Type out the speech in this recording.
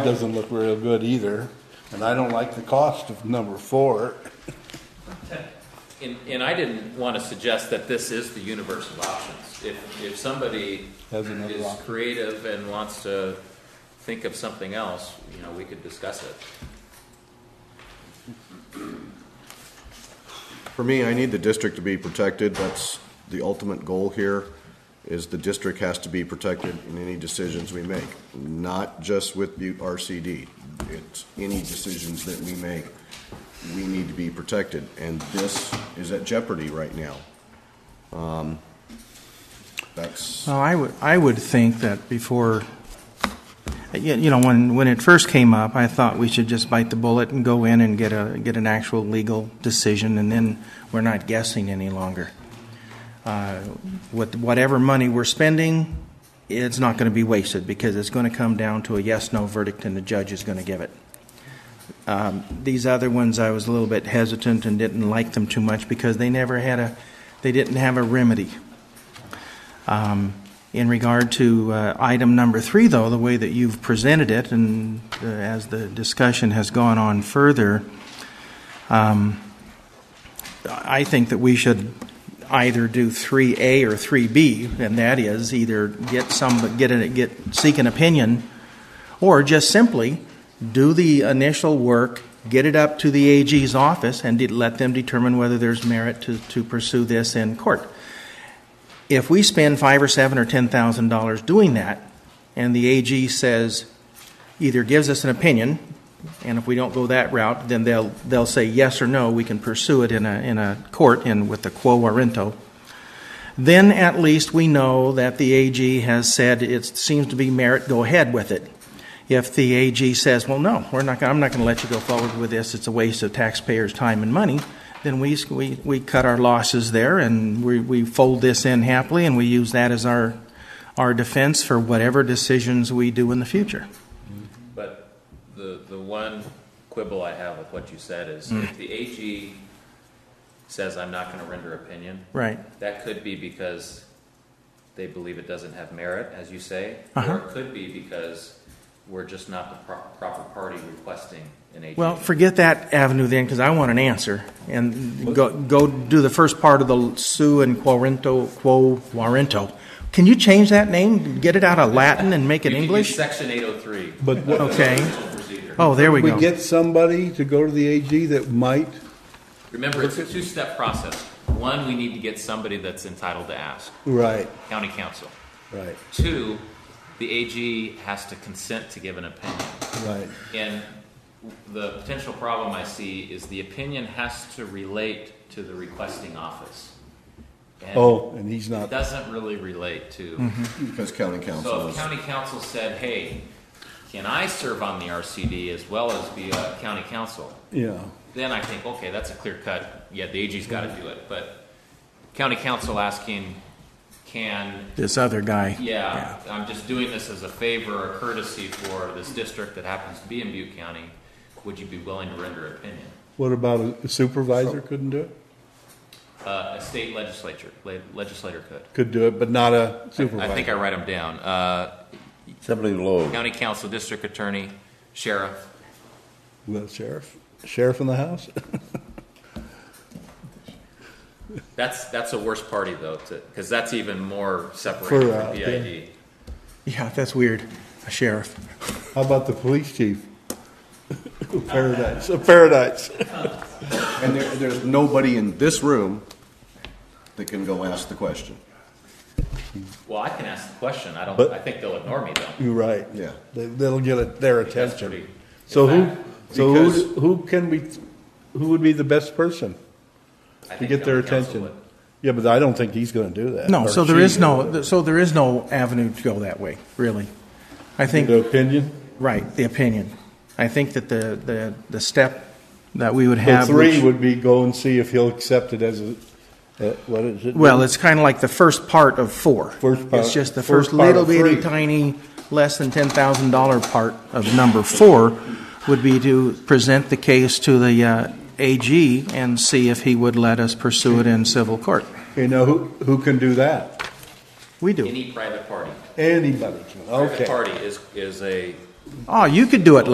Doesn't look real good either, and I don't like the cost of number four. And, and I didn't want to suggest that this is the universe of options. If, if somebody Has another is option. creative and wants to think of something else, you know, we could discuss it. For me, I need the district to be protected. That's the ultimate goal here, is the district has to be protected in any decisions we make, not just with Butte RCD. It's any decisions that we make, we need to be protected, and this is at jeopardy right now. Um, That's, Well, I would, I would think that before, you you know, when, when it first came up, I thought we should just bite the bullet and go in and get a, get an actual legal decision, and then we're not guessing any longer. Uh, With whatever money we're spending, it's not going to be wasted, because it's going to come down to a yes-no verdict, and the judge is going to give it. Um, These other ones, I was a little bit hesitant and didn't like them too much, because they never had a, they didn't have a remedy. Um, In regard to uh, item number three, though, the way that you've presented it, and uh, as the discussion has gone on further, um, I think that we should either do 3A or 3B, and that is either get some, get, an- get, seek an opinion, or just simply do the initial work, get it up to the AG's office, and de- let them determine whether there's merit to, to pursue this in court if we spend five or seven or ten thousand dollars doing that, and the AG says, either gives us an opinion, and if we don't go that route, then they'll they'll say yes or no. We can pursue it in a in a court in with the quo warranto. Then at least we know that the AG has said it seems to be merit. Go ahead with it. If the AG says, well, no, we're not. Gonna, I'm not going to let you go forward with this. It's a waste of taxpayers' time and money then we, we, we cut our losses there and we, we fold this in happily and we use that as our, our defense for whatever decisions we do in the future. But the, the one quibble I have with what you said is Hmm. if the AG says, I'm not going to render opinion, Right. that could be because they believe it doesn't have merit, as you say, Uh-huh. or it could be because we're just not the pro- proper party requesting an AG. Well, forget that avenue then because I want an answer and go, go do the first part of the Sue and Quarento, Quo Warento. Can you change that name? Get it out of Latin and make it You can use English? Section 803. But what- Okay. Procedure. Oh, there we We go. get somebody to go to the AG that might, Remember, it's a two-step process. One, we need to get somebody that's entitled to ask, right, county council. right, Two, the AG has to consent to give an opinion. right. And the potential problem I see is the opinion has to relate to the requesting office. And Oh, and he's It not, doesn't really relate to. because county So council if is, county council said, hey, can I serve on the RCD as well as be a county council? yeah, then I think, okay, that's a clear cut. Yeah, the AG's got to do it. But county council asking, can, This other guy. yeah, I'm just doing this as a favor or courtesy for this district that happens to be in Butte County. Would you be willing to render opinion? what about a supervisor couldn't do it? Uh, a state legislature, le- legislator could. Could do it, but not a I think I supervisor. write them down. Uh, Somebody low. county council, district attorney, sheriff. The sheriff, sheriff in the house? That's that's a worse party though, because that's even more For, separated uh, from BID. Yeah, that's weird. A sheriff. How about the police chief? Paradise, paradise. and there, there's nobody in this room that can go ask the question. Well, I can ask the question. I don't. But- I think they'll ignore me though. You're right. Yeah. They- They'll get it- their That's attention. pretty- So who, Exactly. so who, Because- who can be, who would be the best person I to think get their county council attention? would. Yeah, but I don't think he's gonna do that. No, or so there she. uh, is no, so there is no avenue to go that way, really. I The think, opinion? right, the opinion. I think that the, the, the step that we would The have. three which- would be go and see if he'll accept it as a, uh, what is it? Well, it's kind of like the first part of four. First part- It's just the first first part little of bitty three. tiny, less than ten thousand dollar part of number four would be to present the case to the, uh, AG and see if he would let us pursue it in civil court. You know, who, who can do that? We do. Any private party. Anybody can, Private okay. party is, is a Oh, you could do it